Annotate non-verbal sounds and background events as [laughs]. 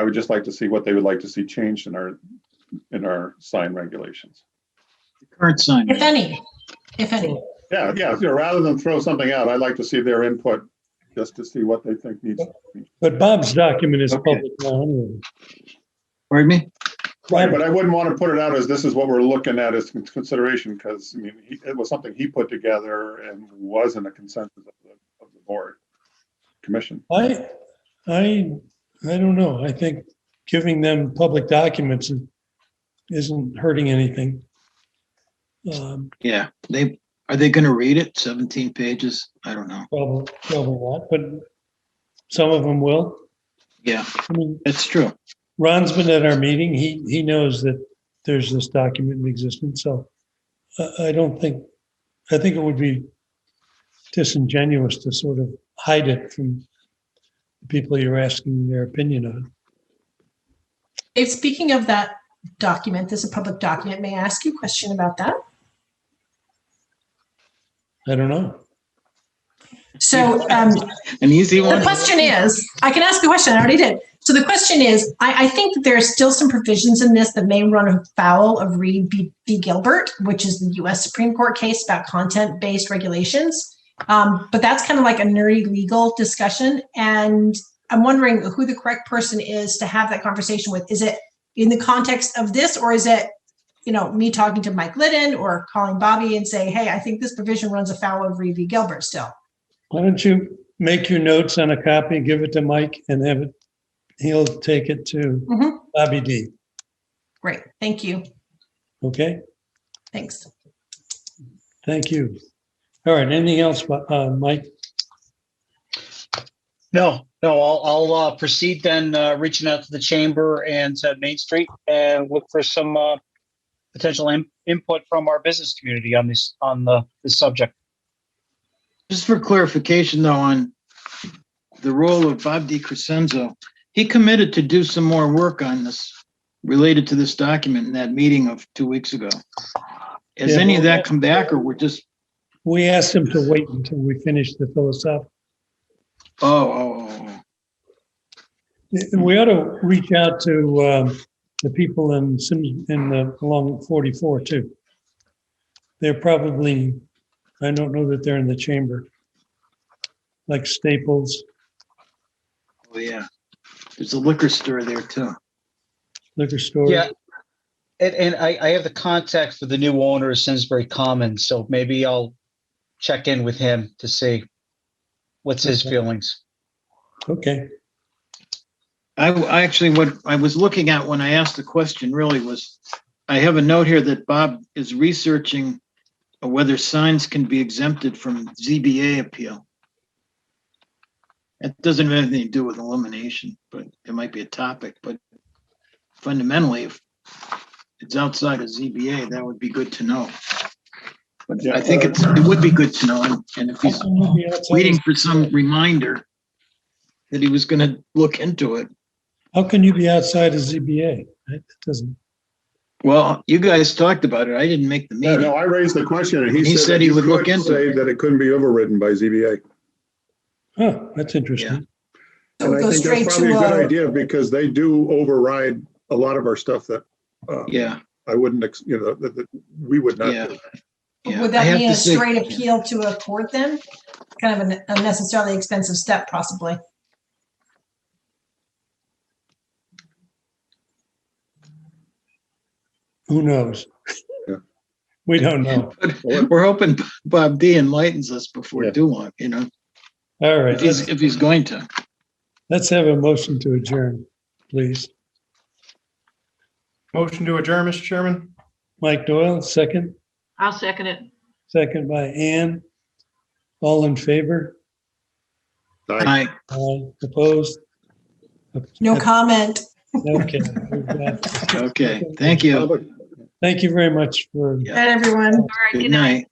I would just like to see what they would like to see changed in our, in our sign regulations. Current sign. If any, if any. Yeah, yeah, you know, rather than throw something out, I'd like to see their input, just to see what they think needs. But Bob's document is Okay. public now anyway. Pardon me? Right, but I wouldn't want to put it out as this is what we're looking at as con- consideration, because, I mean, he- it was something he put together and wasn't a consensus of the, of the board. Commission, I, I, I don't know. I think giving them public documents isn't hurting anything. Um, Yeah, they, are they gonna read it? Seventeen pages? I don't know. Probably, probably not, but some of them will. Yeah, I mean, that's true. Ron's been at our meeting. He, he knows that there's this document in existence, so uh, I, I don't think, I think it would be disingenuous to sort of hide it from the people you're asking their opinion on. If, speaking of that document, this is a public document, may I ask you a question about that? I don't know. So, um, An easy the one? question is, I can ask the question, I already did. So the question is, I, I think that there are still some provisions in this that may run afoul of Reed v. v. Gilbert, which is the US Supreme Court case about content-based regulations. Um, but that's kind of like a nerdy legal discussion. And I'm wondering who the correct person is to have that conversation with. Is it in the context of this, or is it, you know, me talking to Mike Liddon or calling Bobby and saying, hey, I think this provision runs afoul of Reed v. Gilbert still? Why don't you make your notes on a copy, give it to Mike and have it, he'll take it to Mhm. Bobby D, Great, thank you. okay? Thanks. Thank you. All right, anything else, uh, Mike? No, no, I'll, I'll uh, proceed then, uh, reaching out to the chamber and uh, Main Street and look for some uh, potential in- input from our business community on this, on the, this subject. Just for clarification though, on the role of Bob DiCrescenzo, he committed to do some more work on this related to this document in that meeting of two weeks ago. Has Yeah. any of that come back or we're just, We asked him to wait until we finish the philosophical. oh, oh, oh, oh. We ought to reach out to um, the people in Sims, in the, along 44 too. They're probably, I don't know that they're in the chamber. Like Staples, oh, yeah. There's a liquor store there too. liquor store. Yeah. And, and I, I have the contact for the new owner of Simsbury Commons, so maybe I'll check in with him to see what's his Okay. feelings. Okay, I, I actually, what I was looking at when I asked the question really was, I have a note here that Bob is researching whether signs can be exempted from ZBA appeal. That doesn't have anything to do with elimination, but it might be a topic, but fundamentally, if it's outside of ZBA, that would be good to know. But I think uh, it's, it would be good to know, and- and if he's waiting for some reminder that he was gonna look into it. how can you be outside of ZBA? That doesn't, Well, you guys talked about it. I didn't make the yeah, no, meeting. I raised the question and he said. said that he you would look could into say it. That it couldn't be overridden by ZBA. huh, that's interesting. So And it I goes think straight that's probably to, a good uh, idea because they do override a lot of our stuff that uh, Yeah, I wouldn't, ex- you know, that, that we would not. Yeah. do. yeah. would I that have be to a say- straight appeal to a court then? Kind of an unnecessarily expensive step possibly. Who knows? Yeah. [laughs] We don't know. We're hoping Bob D enlightens us before Yeah. too long, you know, All right, if he's, let's, if he's going to. let's have a motion to adjourn, please. Motion to adjourn, Mr. Chairman? Mike Doyle, second, I'll second it. second by Ann. All in favor? I- I, Aye. Opposed? No comment. Okay. we've got- okay, thank you. Public Thank you very much for. Yeah. Not everyone. All right, Good good night. night.